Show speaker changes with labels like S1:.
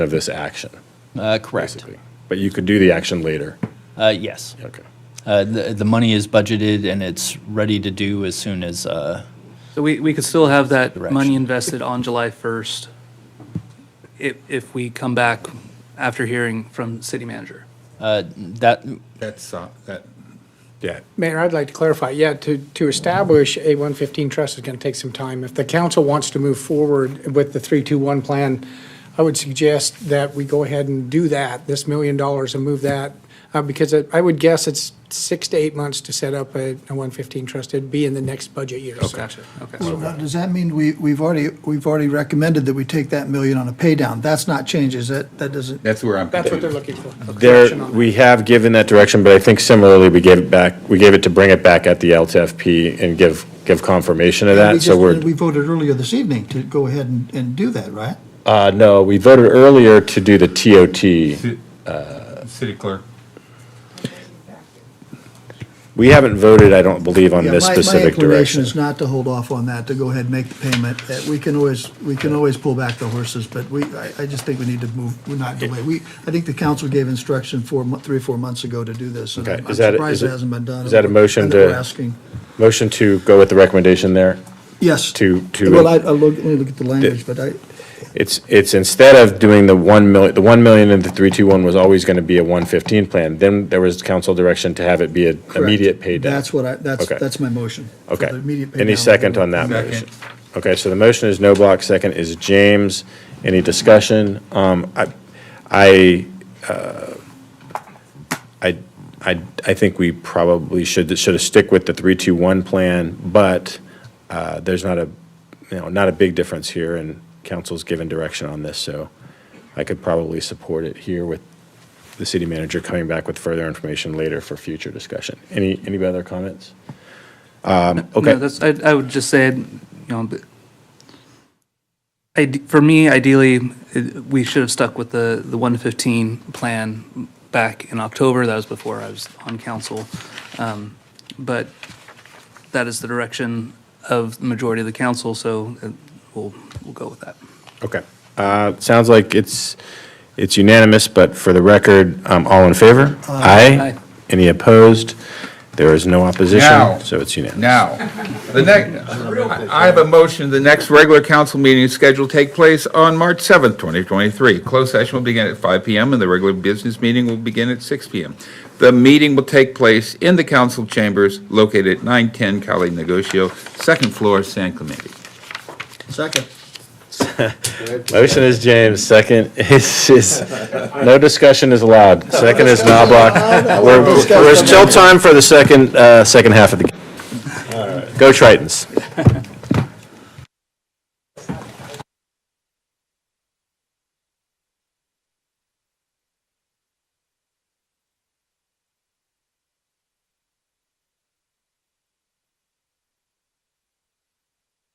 S1: of this action,
S2: Uh, Correct.
S1: basically. But you could do the action later.
S2: Uh, Yes.
S1: Okay.
S2: Uh, The the money is budgeted and it's ready to do as soon as, uh,
S3: So we, we could still have that
S2: Direction.
S3: money invested on July 1st if, if we come back after hearing from city manager.
S2: uh, that,
S4: That's, uh, that,
S1: Yeah.
S5: Mayor, I'd like to clarify, yeah, to, to establish a 115 trust is going to take some time. If the council wants to move forward with the 321 plan, I would suggest that we go ahead and do that, this million dollars and move that, uh, because it- I would guess it's six to eight months to set up a a 115 trust. It'd be in the next budget year. so-
S3: Gotcha, okay.
S6: So now, does that mean we, we've already, we've already recommended that we take that million on a pay down? That's not changes, that, that doesn't,
S4: that's where I'm
S5: That's what they're
S4: confused.
S5: looking for.
S1: There,
S5: Action on
S1: we have given that direction, but I think similarly, we gave it back, we gave it to bring it back at the LTFP and give, give confirmation of
S6: we
S1: that, so
S6: just-
S1: we're.
S6: We voted earlier this evening to go ahead and, and do that, right?
S1: Uh, no, we voted earlier to do the TOT.
S4: Ci- City clerk.
S1: We haven't voted, I don't believe, on
S6: Yeah,
S1: this
S6: my-
S1: specific
S6: My inclination
S1: direction.
S6: is not to hold off on that, to go ahead and make the payment. Uh, We can always, we can always pull back the horses, but we, I, I just think we need to move, we're not delay. We, I think the council gave instruction four, mo- three, or four months ago to do this. and
S1: Okay,
S6: I'm
S1: is that-
S6: I'm surprised
S1: is
S6: it
S1: it-
S6: hasn't been done.
S1: is that a motion
S6: I know we're
S1: to-
S6: asking.
S1: Motion to go with the recommendation there.
S6: Yes.
S1: to- to-
S6: Well, I, I look, let me look at the language, but I,
S1: It's, it's instead of doing the 1 million, the 1 million and the 321 was always going to be a 115 plan. Then there was council direction to have it be an
S6: Correct.
S1: immediate pay down.
S6: That's what I, that's,
S1: Okay.
S6: that's my motion. for
S1: Okay.
S6: the immediate pay
S1: Any
S6: down.
S1: second on that
S4: Second.
S1: motion? Okay, so the motion is no block. second is James. Any discussion? Um, I, I, uh, I, I, I think we probably should, should have stick with the three-two-one plan, but, uh, there's not a, you know, not a big difference here, and council's given direction on this, so I could probably support it here with the city manager coming back with further information later for future discussion. Any, any other comments? Um, Okay.
S3: No, that's, I, I would just say, you know, but ide- for me, ideally, it- we should have stuck with the, the 115 plan back in October. That was before I was on council. Um, But that is the direction of the majority of the council, so uh, we'll, we'll go with that.
S1: Okay. Uh, Sounds like it's, it's unanimous, but for the record, um, all in favor? Aye.
S3: Aye.
S1: Any opposed? There is no
S4: Now.
S1: opposition, so it's unanimous.
S4: Now, the next, I have a motion, the next regular council meeting is scheduled to take place on March 7th, 2023. Closed session will begin at 5 PM and the regular business meeting will begin at 6 PM. The meeting will take place in the council chambers located at 910 Cali Negocio, second floor, San Clemente.
S6: Second.
S1: Motion is James, second is, is, no discussion is allowed. Second is Knobloch. We're- We're still time for the second, uh, second half of the. game. Go Tritons.